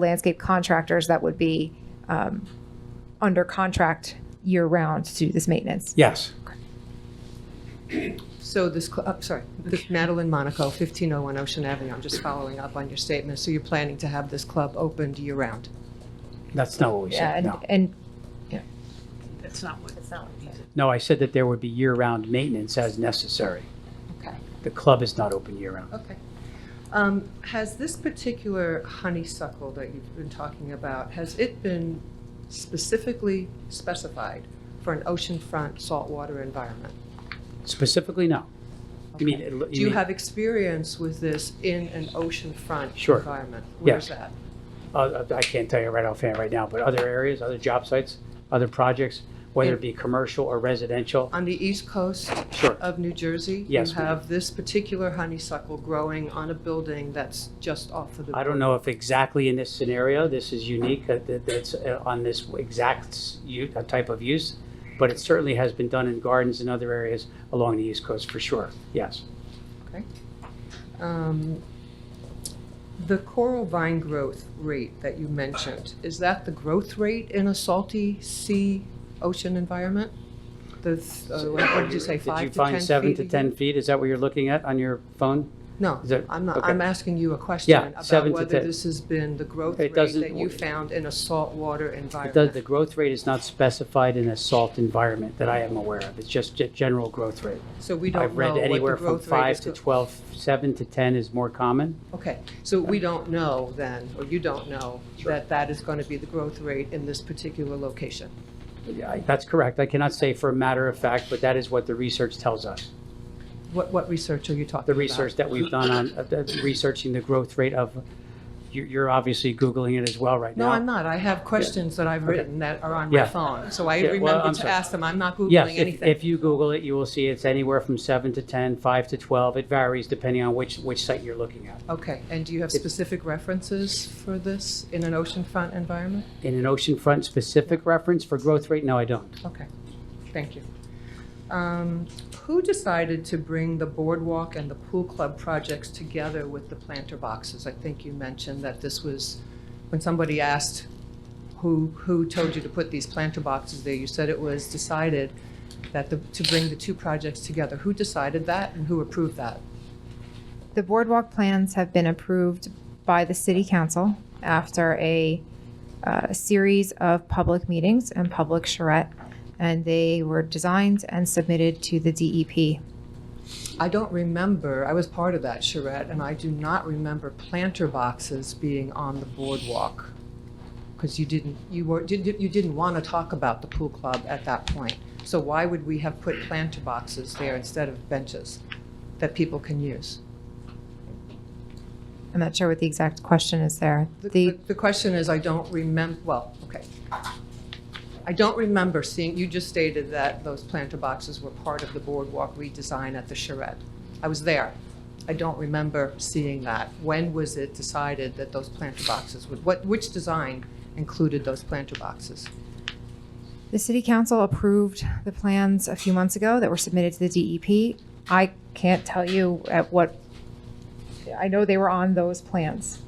landscape contractors that would be um, under contract year-round to do this maintenance. Yes. So this, cl- uh, sorry, this Madeline Monaco, 1501 Ocean Avenue, I'm just following up on your statement. So you're planning to have this club opened year-round? That's not what we Yeah, said, and, no. and That's not what. That's not what he said. No, I said that there would be year-round maintenance as necessary. Okay. The club is not open year-round. Okay. Um, Has this particular honeysuckle that you've been talking about, has it been specifically specified for an oceanfront saltwater environment? Specifically, no. You mean, you Do you mean- have experience with this in an oceanfront Sure. environment? Where's Yes. that? uh, I can't tell you right offhand right now, but other areas, other job sites, other projects, whether it be commercial or residential, On the east coast sure. of New Jersey? Yes, You ma'am. have this particular honeysuckle growing on a building that's just off of the. I don't know if exactly in this scenario, this is unique, that, that- that's uh, on this exact s- u- uh, type of use, but it certainly has been done in gardens and other areas along the East Coast for sure, yes. Um, The coral vine growth rate that you mentioned, is that the growth rate in a salty sea ocean environment? The, th- uh, what what did you say, five to 10 feet? Did you find seven to a 10 year? feet? Is that what you're looking at on your phone? No, Is that- I'm not, okay. I'm asking you a question seven about to whether 10. this has been the growth It rate doesn't- that you found in a saltwater It does, environment. the growth rate is not specified in a salt environment that I am aware of. It's just a general growth rate. So we don't I've know read what the anywhere from growth rate five is. to go- 12, seven to 10 is more common. Okay, so we don't know then, or you don't know, Sure. that that is going to be the growth rate in this particular location? Yeah, I- That's correct. I cannot say for a matter of fact, but that is what the research tells us. What, what research are you talking about? The research that we've done on, uh, the- researching the growth rate of, you- you're obviously Googling it as well right now. No, I'm not. I have questions that I've Okay. written that are on my Yeah. phone, so I Yeah, well, remember I'm to sorry. ask them. I'm not Yes, Googling if, anything. if you Google it, you will see it's anywhere from seven to 10, five to 12. It varies depending on which, which site you're looking at. Okay, and do you have If- specific references for this in an oceanfront environment? In an oceanfront specific reference for growth rate, no, I don't. Okay, thank you. Um, Who decided to bring the boardwalk and the pool club projects together with the planter boxes? I think you mentioned that this was, when somebody asked who, who told you to put these planter boxes there, you said it was decided that the, to bring the two projects together. Who decided that and who approved that? the boardwalk plans have been approved by the city council after a uh, series of public meetings and public charrette, and they were designed and submitted to the E DEP. I don't remember, I was part of that charrette, and I do not remember planter boxes being on the boardwalk. Because you didn't, you were, did- did- you didn't want to talk about the pool club at that point. So why would we have put planter boxes there instead of benches that people can use? I'm not sure what the exact question is there. The- The, The, the question is, I don't remember, well, okay. I don't remember seeing, you just stated that those planter boxes were part of the boardwalk redesign at the charrette. I was there. I don't remember seeing that. When was it decided that those planter boxes would, what, which design included those planter boxes? the city council approved the plans a few months ago that were submitted to the DEP. I can't tell you at what, I know they were on those plans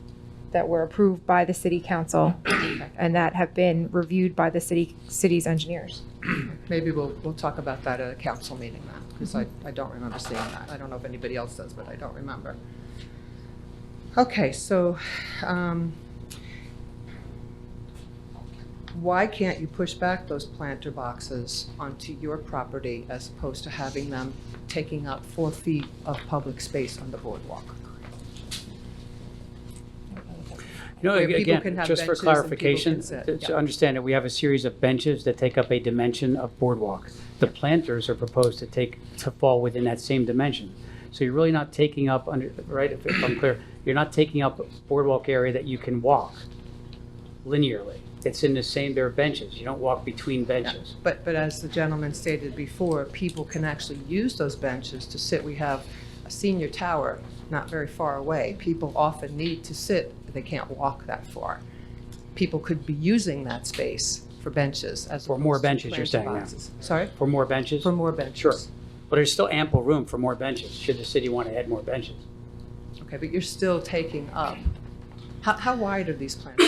that were approved by the city council and that have been reviewed by the city, city's engineers. Maybe we'll, we'll talk about that at a council meeting then, because I, I don't remember seeing that. I don't know if anybody else does, but I don't remember. Okay, so, um, why can't you push back those planter boxes onto your property as opposed to having them taking up four feet of public space on the boardwalk? You know, where people again, can have just for benches and people can clarification, sit, to to yeah. understand that we have a series of benches that take up a dimension of boardwalk. The planters are proposed to take, to fall within that same dimension. So you're really not taking up, under right, if if I'm clear, you're not taking up boardwalk area that you can walk linearly. It's in the same, there are benches. You don't walk between benches. But, but as the gentleman stated before, people can actually use those benches to sit. We have a senior tower not very far away. People often need to sit, they can't walk that far. People could be using that space for benches as. For more opposed to benches, you're planter saying now. boxes. Sorry, For more benches? for more benches. Sure. But there's still ample room for more benches, should the city want to add more benches. Okay, but you're still taking up, how, how wide are these plants?